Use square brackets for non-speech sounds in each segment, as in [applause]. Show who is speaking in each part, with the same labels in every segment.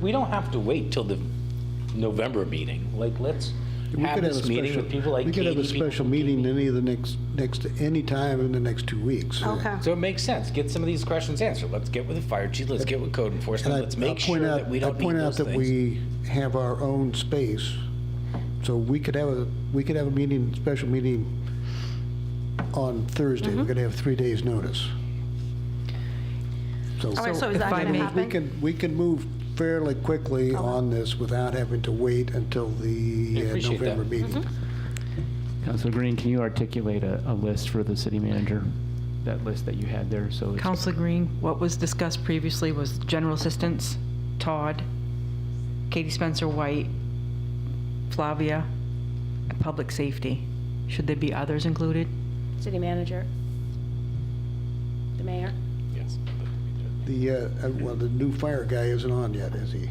Speaker 1: we don't have to wait till the November meeting. Like, let's
Speaker 2: We
Speaker 1: have
Speaker 2: could have a
Speaker 1: this meeting
Speaker 2: special,
Speaker 1: with people like
Speaker 2: we could
Speaker 1: Katie.
Speaker 2: have a
Speaker 1: people-
Speaker 2: special meeting any of the next, next, any time in the next two weeks.
Speaker 3: Okay.
Speaker 1: So it makes sense. Get some of these questions answered. Let's get with the fire chief, let's get with code
Speaker 2: And
Speaker 1: enforcement,
Speaker 2: I-
Speaker 1: let's
Speaker 2: I'll
Speaker 1: make sure
Speaker 2: point out-
Speaker 1: that we don't
Speaker 2: I
Speaker 1: need
Speaker 2: point out
Speaker 1: those
Speaker 2: that
Speaker 1: things.
Speaker 2: we have our own space, so we could have a, we could have a meeting, special meeting on Thursday.
Speaker 3: Mm-hmm.
Speaker 2: We're going to have three days' notice. So
Speaker 3: All right, so
Speaker 4: if
Speaker 3: is that
Speaker 4: I
Speaker 3: going to
Speaker 4: may-
Speaker 2: we
Speaker 3: happen?
Speaker 2: can, we can move fairly quickly on this without having to wait until
Speaker 1: I
Speaker 2: the uh,
Speaker 1: appreciate that.
Speaker 2: November
Speaker 3: Mm-hmm.
Speaker 2: meeting.
Speaker 5: Councilor Green, can you articulate a, a list for the city manager? That list that you had there, so it's
Speaker 4: Counselor Green, what was discussed previously was general assistance, Todd, Katie Spencer White, Flavia, and public safety. Should there be others included?
Speaker 3: City manager? The mayor?
Speaker 1: Yes.
Speaker 2: The, uh, uh, well, the new fire guy isn't on yet, is he?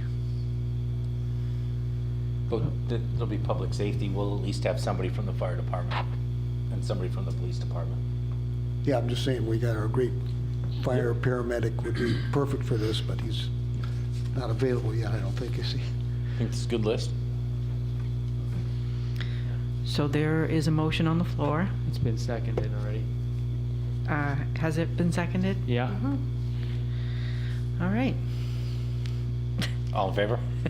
Speaker 1: But th- there'll be public safety. We'll at least have somebody from the fire department and somebody from the police department.
Speaker 2: Yeah, I'm just saying, we got our great fire paramedic would be perfect for this, but he's not available yet, I don't think, is he?
Speaker 1: I think it's a good list.
Speaker 4: So there is a motion on the floor.
Speaker 5: it's been seconded already.
Speaker 4: Uh, Has it been seconded? Mm-hmm.
Speaker 5: Yeah,
Speaker 4: All right.
Speaker 1: All in favor? [laughs]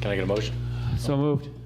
Speaker 1: Can I get a motion?
Speaker 5: so moved.